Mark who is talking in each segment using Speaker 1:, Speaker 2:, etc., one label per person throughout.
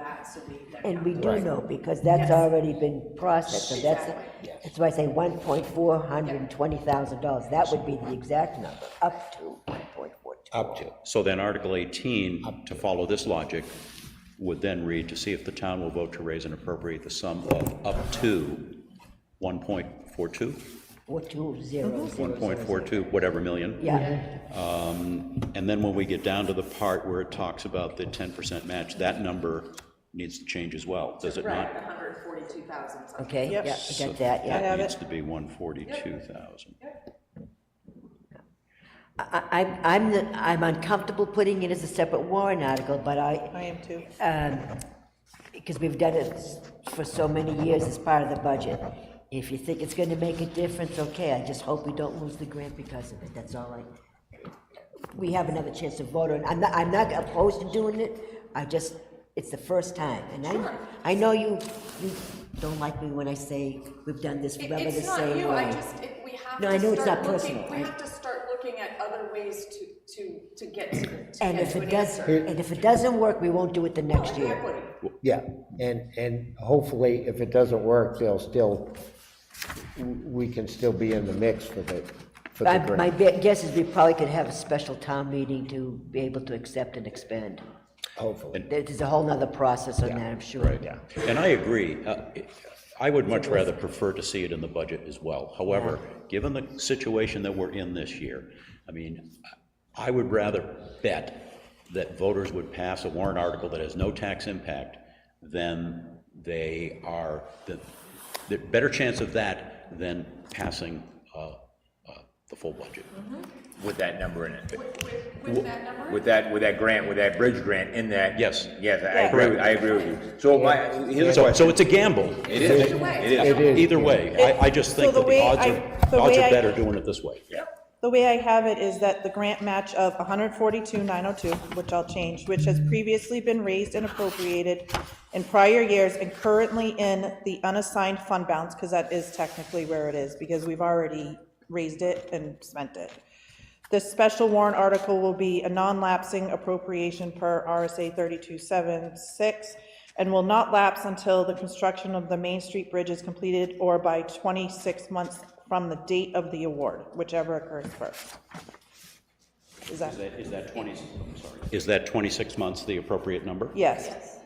Speaker 1: happens to be there.
Speaker 2: And we do
Speaker 3: Right.
Speaker 2: know, because
Speaker 1: Yes.
Speaker 2: that's already been processed, so that's,
Speaker 1: Exactly.
Speaker 3: Yes.
Speaker 2: that's why I say one point four hundred and twenty thousand dollars, that would be the exact number, up to one point four two.
Speaker 3: up to.
Speaker 4: So then Article 18, to follow this logic, would then read, "To see if the town will vote to raise and appropriate the sum of up to 1.42,
Speaker 2: Four two zero zero zero.
Speaker 4: 1.42, whatever million."
Speaker 2: Yeah,
Speaker 4: And then when we get down to the part where it talks about the 10% match, that number needs to change as well, does it
Speaker 1: Right,
Speaker 4: not?
Speaker 1: hundred and forty-two thousand something.
Speaker 2: okay, yeah,
Speaker 5: Yep.
Speaker 2: I got that, yeah.
Speaker 4: That
Speaker 5: have it.
Speaker 4: needs to be 142,000.
Speaker 2: I, I- I'm, the- I'm uncomfortable putting it as a separate warrant article, but I, um,
Speaker 5: I am too.
Speaker 2: because we've done it s- for so many years as part of the budget. If you think it's gonna make a difference, okay, I just hope we don't lose the grant because of it, that's all I. We have another chance to vote on, I'm not, I'm not opposed to doing it, I just, it's the first time, and I, I know you, you don't like me when I say we've done this
Speaker 1: It-
Speaker 2: forever the
Speaker 1: It's not
Speaker 2: same
Speaker 1: you, I
Speaker 2: way.
Speaker 1: just, it- we have
Speaker 2: No, I know
Speaker 1: to
Speaker 2: it's
Speaker 1: start
Speaker 2: not
Speaker 1: looking,
Speaker 2: personal,
Speaker 1: we
Speaker 2: I-
Speaker 1: have to start looking at other ways to, to, to get to, the- to
Speaker 2: And
Speaker 1: get
Speaker 2: if
Speaker 1: to
Speaker 2: it
Speaker 1: an
Speaker 2: does,
Speaker 1: answer.
Speaker 2: and if it doesn't work, we won't do it the next year.
Speaker 1: Exactly.
Speaker 3: Yeah, and, and hopefully, if it doesn't work, they'll still, we can still be in the mix for the, for the
Speaker 2: I- My
Speaker 3: grant.
Speaker 2: be- guess is we probably could have a special town meeting to be able to accept and expand.
Speaker 3: Hopefully,
Speaker 2: There- There's a whole nother process on that, I'm sure.
Speaker 4: Right, and I agree. Uh, I would much rather prefer to see it in the budget as well. However, given the situation that we're in this year, I mean, I would rather bet that voters would pass a warrant article that has no tax impact than they are, the, the better chance of that than passing uh, uh, the full budget.
Speaker 6: Mm-hmm. With that number in it.
Speaker 1: With, with that number?
Speaker 6: With that, with that grant, with that bridge grant in that.
Speaker 4: Yes.
Speaker 6: Yes, I agree, with- I agree with you. So my, here's
Speaker 4: So,
Speaker 6: a
Speaker 4: so
Speaker 6: question.
Speaker 4: it's a gamble.
Speaker 6: It is,
Speaker 1: Either way,
Speaker 6: it
Speaker 1: it's
Speaker 6: is.
Speaker 1: not-
Speaker 3: is.
Speaker 4: Either way, I, I just think that
Speaker 5: So the
Speaker 4: the
Speaker 5: way
Speaker 4: odds
Speaker 5: I- the
Speaker 4: are, odds
Speaker 5: way
Speaker 4: are
Speaker 5: I-
Speaker 4: better doing it this way.
Speaker 5: The way I have it is that the grant match of 142,902, which I'll change, which has previously been raised and appropriated in prior years and currently in the unassigned fund balance, because that is technically where it is, because we've already raised it and spent it. This special warrant article will be a non-lapsing appropriation per RSA 3276 and will not lapse until the construction of the Main Street Bridge is completed or by 26 months from the date of the award, whichever occurs first. Is that,
Speaker 4: Is that 20, I'm sorry. Is that 26 months the appropriate number?
Speaker 5: yes,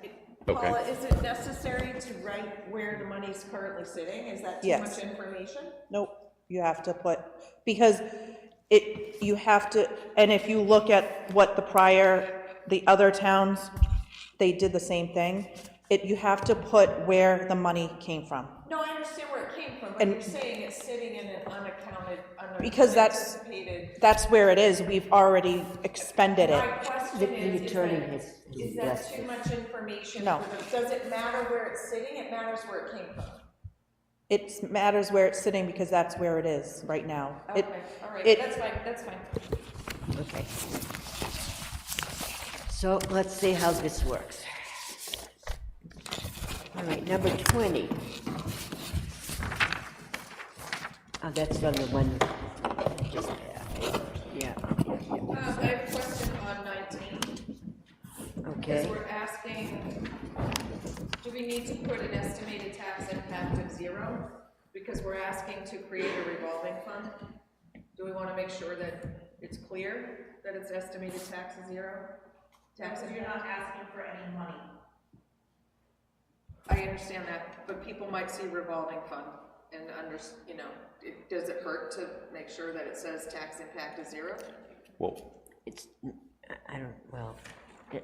Speaker 4: Okay.
Speaker 7: Paula, is it necessary to write where the money's currently sitting? Is that too
Speaker 5: Yes.
Speaker 7: much information?
Speaker 5: nope, you have to put, because it, you have to, and if you look at what the prior, the other towns, they did the same thing, it, you have to put where the money came from.
Speaker 7: No, I understand where it came from, but
Speaker 5: And-
Speaker 7: you're saying it's sitting in an unaccounted,
Speaker 5: Because that's-
Speaker 7: unanticipated.
Speaker 5: That's where it is, we've already expended
Speaker 7: My
Speaker 5: it.
Speaker 2: The-
Speaker 7: question
Speaker 2: the
Speaker 7: is, is
Speaker 2: attorney
Speaker 7: that,
Speaker 2: has-
Speaker 7: is
Speaker 2: yes.
Speaker 7: that too much information?
Speaker 5: No.
Speaker 7: for the- Does it matter where it's sitting? It matters where it came from.
Speaker 5: It matters where it's sitting because that's where it is right now. It-
Speaker 7: Okay, all right,
Speaker 5: it-
Speaker 7: that's fine, that's fine.
Speaker 2: Okay. So let's see how this works. All right, number 20. Oh, that's on the one, just, yeah,
Speaker 7: Uh, I have a question on nineteen. Because
Speaker 2: okay.
Speaker 7: we're asking, do we need to put an estimated tax impact of zero? Because we're asking to create a revolving fund. Do we want to make sure that it's clear that it's estimated tax is zero? Taxes, you're not asking for any money. I understand that, but people might see revolving fund and under, you know, it- does it hurt to make sure that it says tax impact is zero?
Speaker 4: Well,
Speaker 2: It's, I- I don't, well,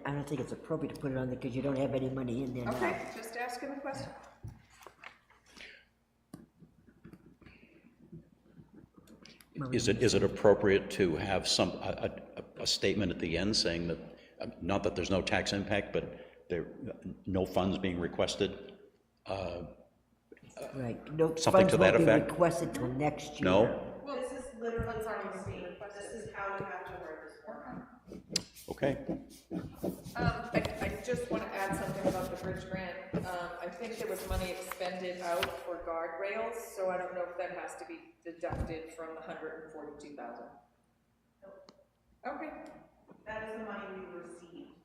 Speaker 2: I don't think it's appropriate to put it on there because you don't have any money in there now.
Speaker 7: Okay, just asking a question.
Speaker 4: is it, is it appropriate to have some, a, a, a statement at the end saying that, uh, not that there's no tax impact, but there, no funds being requested?
Speaker 2: Right, no
Speaker 4: Something
Speaker 2: funds
Speaker 4: to that
Speaker 2: won't be
Speaker 4: effect?
Speaker 2: requested till next year.
Speaker 4: No?
Speaker 7: Well, this is literally what's already being requested. This is how we have to word this warrant.
Speaker 4: Okay.
Speaker 7: Um, I, I just want to add something about the bridge grant. Um, I think there was money expended out for guardrails, so I don't know if that has to be deducted from the hundred and forty-two thousand. Okay. That is the money we received.